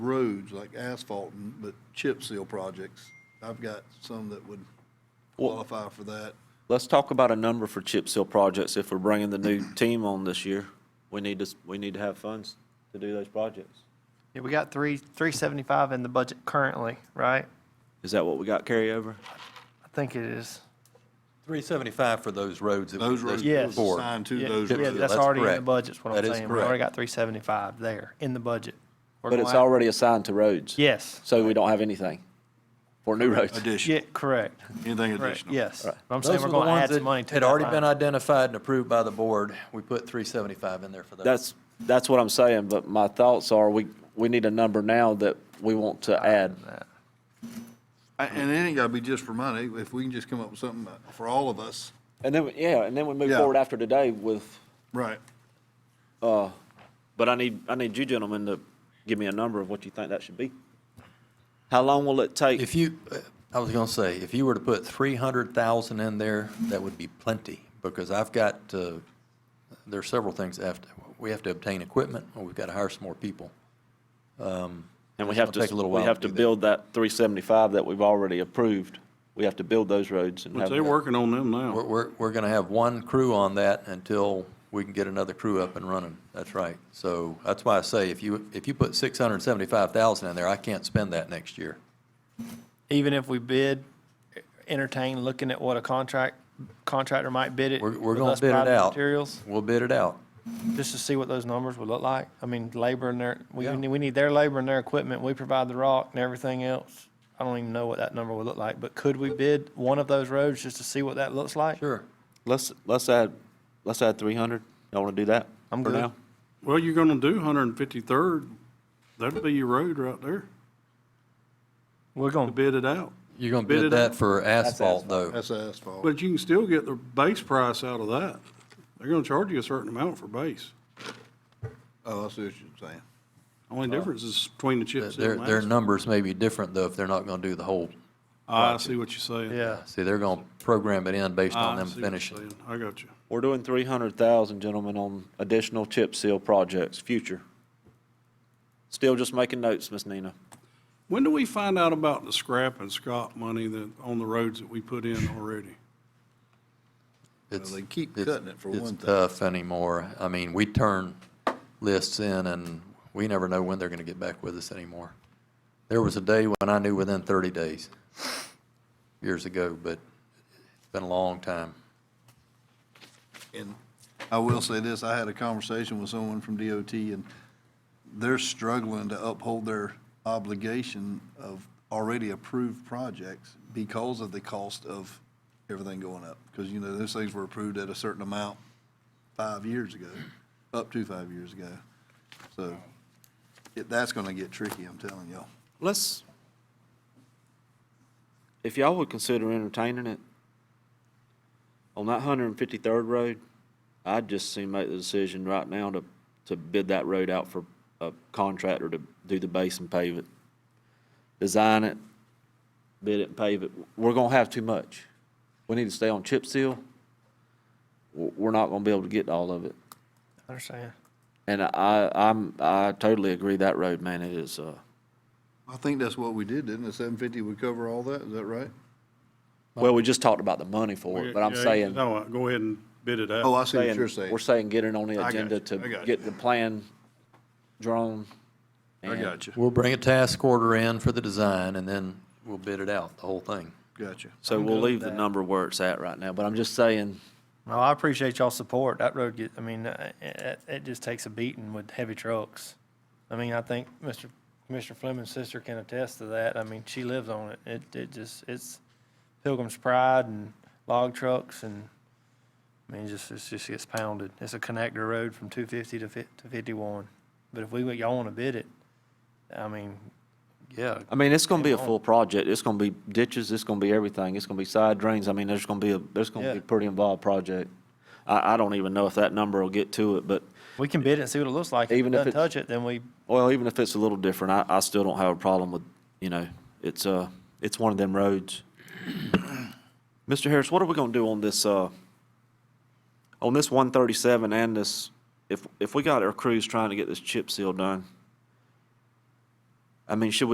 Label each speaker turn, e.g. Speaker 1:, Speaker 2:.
Speaker 1: roads, like asphalt, and- but chip seal projects. I've got some that would qualify for that.
Speaker 2: Let's talk about a number for chip seal projects if we're bringing the new team on this year. We need to, s- we need to have funds to do those projects.
Speaker 3: Yeah, we got three, three seventy-five in the budget currently, right?
Speaker 2: Is that what we got carryover?
Speaker 3: I think it is.
Speaker 4: 375 for those roads. that we-
Speaker 1: Those roads
Speaker 3: Yes.
Speaker 1: were
Speaker 4: four.
Speaker 1: assigned to
Speaker 3: Yeah,
Speaker 1: those
Speaker 3: yeah,
Speaker 1: roads.
Speaker 3: That's
Speaker 4: That's
Speaker 3: already in the
Speaker 4: correct.
Speaker 3: budget, is what I'm
Speaker 4: That is
Speaker 3: saying. We already
Speaker 4: correct.
Speaker 3: got three seventy-five there in the budget. We're
Speaker 2: But it's
Speaker 3: gonna have-
Speaker 2: already assigned to roads.
Speaker 3: Yes,
Speaker 2: So we don't have anything for new roads.
Speaker 1: Addition,
Speaker 3: yeah, correct,
Speaker 1: anything
Speaker 3: correct,
Speaker 1: additional.
Speaker 3: yes.
Speaker 2: Right.
Speaker 3: I'm
Speaker 4: Those
Speaker 3: saying
Speaker 4: were
Speaker 3: we're
Speaker 4: the
Speaker 3: gonna
Speaker 4: ones
Speaker 3: add
Speaker 4: that
Speaker 3: some money to
Speaker 4: had
Speaker 3: that
Speaker 4: already
Speaker 3: line.
Speaker 4: been identified and approved by the board. We put 375 in there for those.
Speaker 2: That's, that's what I'm saying, but my thoughts are we, we need a number now that we want to add.
Speaker 1: I- And it ain't gotta be just for money, if we can just come up with something for all of us.
Speaker 2: And then, yeah, and then we move
Speaker 1: Yeah.
Speaker 2: forward after today with,
Speaker 1: Right.
Speaker 2: but I need, I need you gentlemen to give me a number of what you think that should be. How long will it take?
Speaker 4: If you, uh, I was going to say, if you were to put 300,000 in there, that would be plenty, because I've got, uh, there are several things that have to, we have to obtain equipment, or we've got to hire some more people.
Speaker 2: And we
Speaker 4: It's
Speaker 2: have
Speaker 4: gonna
Speaker 2: to,
Speaker 4: take a little
Speaker 2: we
Speaker 4: while
Speaker 2: have to
Speaker 4: to do that.
Speaker 2: build that 375 that we've already approved. We have to build those roads and
Speaker 5: But
Speaker 2: have.
Speaker 5: they're working on them
Speaker 4: We're,
Speaker 5: now.
Speaker 4: we're, we're going to have one crew on that until we can get another crew up and running. That's right. So that's why I say, if you, if you put 675,000 in there, I can't spend that next year.
Speaker 3: Even if we bid, entertain looking at what a contract, contractor might bid it.
Speaker 4: We're, we're
Speaker 3: with
Speaker 4: going
Speaker 3: us
Speaker 4: to bid it
Speaker 3: private
Speaker 4: out.
Speaker 3: Materials,
Speaker 4: We'll bid it out.
Speaker 3: just to see what those numbers would look like. I mean, labor and their, we,
Speaker 4: Yeah.
Speaker 3: we need- we need their labor and their equipment. We provide the rock and everything else. I don't even know what that number would look like, but could we bid one of those roads just to see what that looks like?
Speaker 4: Sure.
Speaker 2: Let's, let's add, let's add 300. Y'all want to do that?
Speaker 3: I'm
Speaker 2: for
Speaker 3: good.
Speaker 2: now?
Speaker 5: Well, you're gonna do 153rd. That'll be your road right there.
Speaker 3: We're going,
Speaker 5: Bid it out.
Speaker 4: You're going to
Speaker 5: Bid
Speaker 4: bid
Speaker 5: it
Speaker 4: that
Speaker 5: out.
Speaker 4: for asphalt,
Speaker 2: asphalt.
Speaker 4: though.
Speaker 1: That's asphalt.
Speaker 5: But you can still get the base price out of that. They're gonna charge you a certain amount for base.
Speaker 1: Oh, I see what you're saying.
Speaker 5: Only
Speaker 4: Oh.
Speaker 5: difference is between the chip seal
Speaker 4: Their,
Speaker 5: and
Speaker 4: their
Speaker 5: asphalt.
Speaker 4: numbers may be different, though, if they're not going to do the whole.
Speaker 5: Ah, I see what you're saying. Ah,
Speaker 3: yeah.
Speaker 4: See, they're going to program it in based on
Speaker 5: I
Speaker 4: them
Speaker 5: see what you're
Speaker 4: finishing.
Speaker 5: saying. I got you.
Speaker 2: We're doing 300,000, gentlemen, on additional chip seal projects, future. Still just making notes, Miss Nina.
Speaker 5: When do we find out about the scrap and scot money that, on the roads that we put in already?
Speaker 4: It's-
Speaker 1: they keep
Speaker 4: it's-
Speaker 1: cutting it for one
Speaker 4: It's
Speaker 1: thing.
Speaker 4: tough anymore. I mean, we turn lists in, and we never know when they're going to get back with us anymore. There was a day when I knew within 30 days, years ago, but it's been a long time.
Speaker 1: And I will say this, I had a conversation with someone from DOT, and they're struggling to uphold their obligation of already approved projects because of the cost of everything going up. Because, you know, those things were approved at a certain amount five years ago, up to five years ago. So it- that's going to get tricky, I'm telling y'all.
Speaker 2: Let's, if y'all would consider entertaining it, on that 153rd Road, I'd just soon make the decision right now to, to bid that road out for a contractor to do the base and pave it. Design it, bid it and pave it. We're gonna have too much. We need to stay on chip seal. W- We're not gonna be able to get to all of it.
Speaker 3: I understand.
Speaker 2: And I, I'm, I totally agree that road, man, it is, uh,
Speaker 1: I think that's what we did, didn't it? 750 would cover all that, is that right?
Speaker 2: Well, we just talked about the money for it, but I'm
Speaker 5: Yeah,
Speaker 2: saying,
Speaker 5: No, go ahead and bid it out.
Speaker 1: Oh, I see what
Speaker 2: saying-
Speaker 1: you're saying.
Speaker 2: we're saying get it on the
Speaker 1: got
Speaker 2: agenda
Speaker 1: you,
Speaker 2: to
Speaker 1: I got
Speaker 2: get
Speaker 1: you.
Speaker 2: the plan drawn.
Speaker 1: I got you,
Speaker 4: We'll bring a task order in for the design, and then we'll bid it out, the whole thing.
Speaker 1: got you.
Speaker 2: So
Speaker 3: I'm
Speaker 2: we'll
Speaker 3: good with
Speaker 2: leave the
Speaker 3: that.
Speaker 2: number where it's at right now, but I'm just saying,
Speaker 3: No, I appreciate y'all's support. That road get, I mean, uh, it, it just takes a beating with heavy trucks. I mean, I think Mr. Commissioner Fleming's sister can attest to that. I mean, she lives on it. It, it just, it's Pilgrim's Pride and log trucks and, I mean, it just, it just gets pounded. It's a connector road from two fifty to fif- to fifty-one. But if we, y'all wanna bid it, I mean, yeah,
Speaker 2: I mean, it's gonna be a
Speaker 3: Come on.
Speaker 2: full project. It's gonna be ditches, it's gonna be everything. It's gonna be side drains. I mean, there's gonna be a, there's gonna
Speaker 3: Yeah.
Speaker 2: be a pretty involved project. I, I don't even know if that number will get to it, but,
Speaker 3: we can bid it and see what it looks like. If it
Speaker 2: Even if
Speaker 3: doesn't
Speaker 2: it's-
Speaker 3: touch it, then we
Speaker 2: well, even if it's a little different, I, I still don't have a problem with, you know, it's, uh, it's one of them roads. Mr. Harris, what are we gonna do on this, uh, on this one thirty-seven and this, if, if we got our crews trying to get this chip seal done, I mean, should we